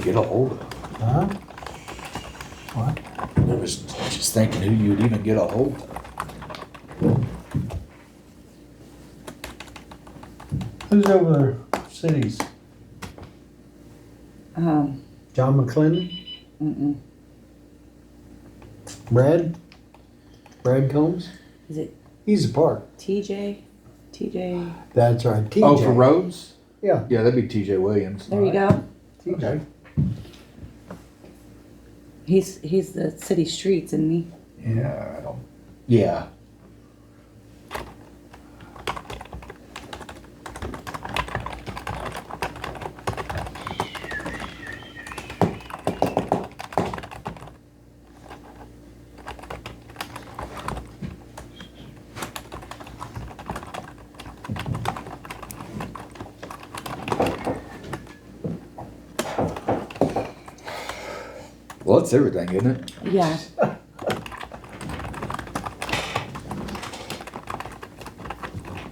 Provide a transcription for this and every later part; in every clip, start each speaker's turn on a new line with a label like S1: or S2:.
S1: get a hold of.
S2: Huh? What?
S1: I was just thinking who you'd even get a hold of.
S2: Who's over there? Cities?
S3: Um,
S2: John McClendon?
S3: mm-mm.
S2: Brad? Brad Combs?
S3: Is it
S2: He's a part.
S3: TJ? TJ.
S2: That's right. TJ.
S1: Oh, for roads?
S2: Yeah.
S1: Yeah, that'd be T.J. Williams.
S3: There you go.
S2: TJ.
S3: He's he's the city streets, isn't he?
S1: Yeah, I don't. Yeah. Well, it's everything, isn't it?
S3: Yeah.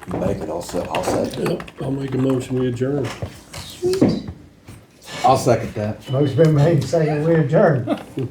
S1: Make it, I'll se- I'll second.
S4: Yep, I'll make a motion, we adjourn.
S1: I'll second that.
S2: Most been made saying we adjourn.